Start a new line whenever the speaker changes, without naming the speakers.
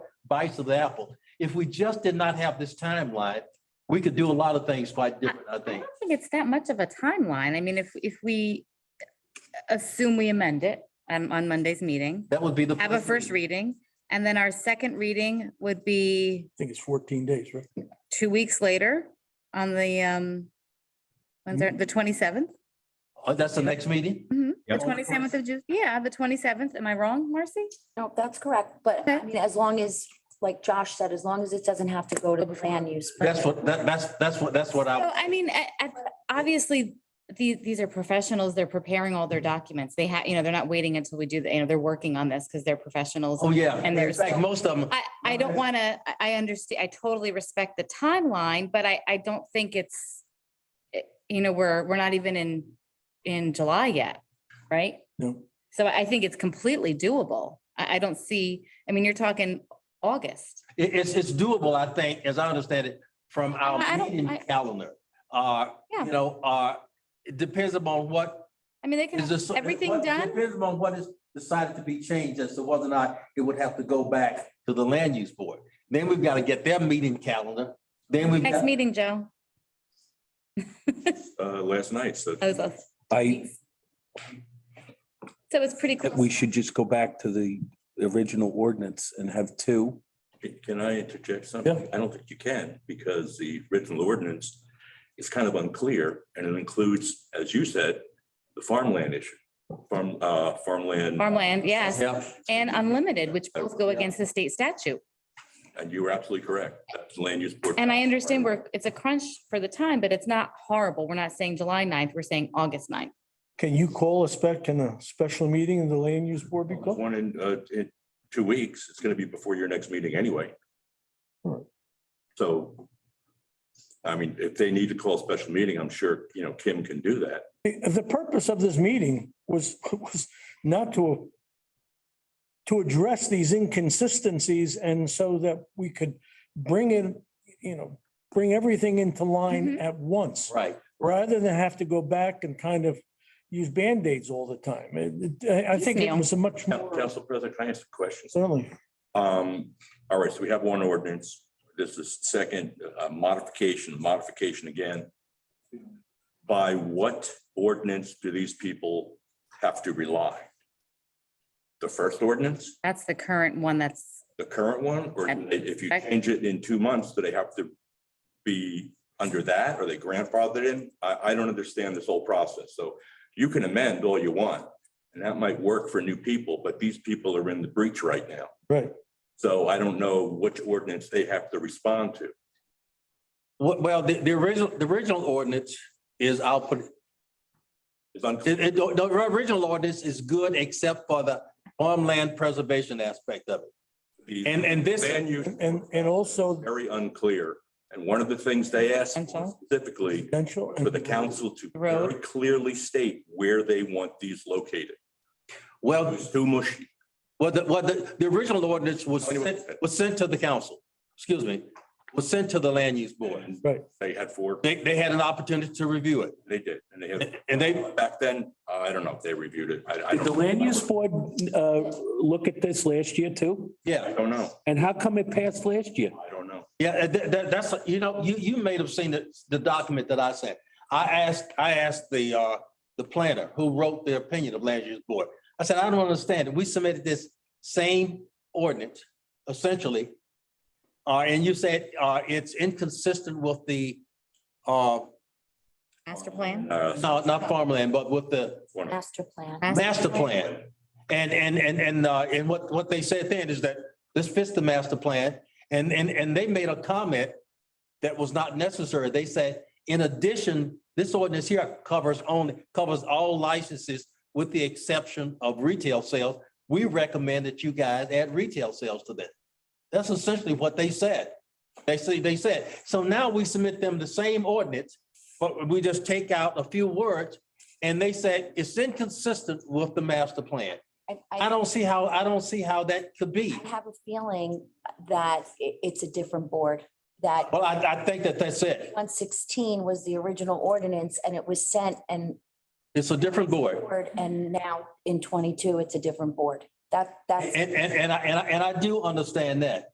bites of the apple. If we just did not have this timeline, we could do a lot of things quite different, I
I
think.
don't think it's that much of a timeline. I mean, if, if we assume we amend it um, on Monday's meeting,
That would be the.
have a first reading, and then our second reading would be
I think it's fourteen days, right?
two weeks later on the, um, when's our- the 27th?
Oh, that's the next meeting?
The
Yep.
27th of June, yeah, the 27th. Am I wrong, Marcy?
No, that's correct, but I
Okay.
mean, as long as, like Josh said, as long as it doesn't have to go to the plan use.
That's what, that, that's, that's what, that's what
Well,
I,
I mean, I- I- obviously, these, these are professionals. They're preparing all their documents. They have, you know, they're not waiting until we do, the you know, they're working on this because they're professionals.
oh, yeah.
And
In
there's-
fact, most of them,
I, I don't want to, I, I understand, I totally respect the timeline, but I, I don't think it's, it- you know, we're, we're not even in, in July yet, right?
No.
So I think it's completely doable. I, I don't see, I mean, you're talking August.
It, it's, it's doable, I think, as I understand it, from our
I- I don't-
meeting
I-
calendar. Uh,
Yeah.
you know, uh, it depends upon what
I mean, they can,
is
have
this.
everything
what-
done?
Depends upon what is decided to be changed as to whether or not it would have to go back to the land use board. Then we've got to get their meeting calendar. Then we've
next
got,
meeting, Joe.
uh, last night, so.
I was off.
I,
So it's pretty
that
close.
we should just go back to the original ordinance and have two.
Uh,
Can I interject something?
Yeah.
I don't think you can because the original ordinance is kind of unclear and it includes, as you said, the farmland issue, farm, uh, farmland.
Farmland, yes,
yeah,
and unlimited, which both go against the state statute.
And you were absolutely correct. That's land use board.
And I understand we're, it's a crunch for the time, but it's not horrible. We're not saying July 9th, we're saying August 9th.
Can you call a spec, can a special meeting in the land use board be called?
One in, uh, in two weeks. It's going to be before your next meeting anyway.
Right.
So, I mean, if they need to call a special meeting, I'm sure, you know, Kim can do that.
The the purpose of this meeting was, was not to to address these inconsistencies and so that we could bring in, you know, bring everything into line at once,
right.
rather than have to go back and kind of use Band-Aids all the time. It- it- I I think it
Piecemeal.
was a much
Coun-
more,
Council President, can I ask a question?
certainly.
Um, all right, so we have one ordinance. This is second uh, modification, modification again. By what ordinance do these people have to rely? The first ordinance,
That's the current one that's,
the current one, or do they- if you
Second.
change it in two months, do they have to be under that? Are they grandfathered in? I, I don't understand this whole process. So you can amend all you want, and that might work for new people, but these people are in the breach right now.
Right.
So I don't know which ordinance they have to respond to.
Well, well, the, the original, the original ordinance is, I'll put, it-
It's unclear.
it, it- the, the original ordinance is good except for the farmland preservation aspect of it.
The
And, and this,
Land use.
And, and also
Very unclear. And one of the things they asked
And so?
specifically
residential. and-
for the council to very
Road.
clearly state where they want these located. It
well,
was too mushy.
Well, the, well, the, the original ordinance was sent, was sent to the council, excuse me, was sent to the land use board.
And
Right.
They had four,
They, they had an opportunity to review it.
they did, and they had.
And they-
Back then, I don't know if they reviewed it. I, I
Did
don't.
the land use board uh, look at this last year too?
I
Yeah,
don't know.
And how come it passed last year?
I don't know.
yeah, uh, that, that, that's, you know, you, you may have seen the, the document that I sent. I asked, I asked the, uh, the planner who wrote the opinion of land use board. I said, I don't understand it. We submitted this same ordinance essentially. Uh, and you said, uh, it's inconsistent with the, uh,
master plan.
Uh,
no, not farmland, but with the
one of-
Master plan.
master plan. And, and, and, and, uh, and what, what they said then is that this fits the master plan. And, and, and they made a comment that was not necessary. They said, in addition, this ordinance here covers only, covers all licenses with the exception of retail sales. We recommend that you guys add retail sales to that. That's essentially what they said. They say, they said, so now we submit them the same ordinance, but we just take out a few words and they said it's inconsistent with the master plan.
I,
I
I
don't see how, I don't see how that could be.
I have a feeling that i- it's a different board, that
Well, I, I think that that's it.
one sixteen was the original ordinance and it was sent and
It's a different board.
board, and now in twenty-two, it's a different board. That, that's.
And, and, and I, and I, and I do understand that.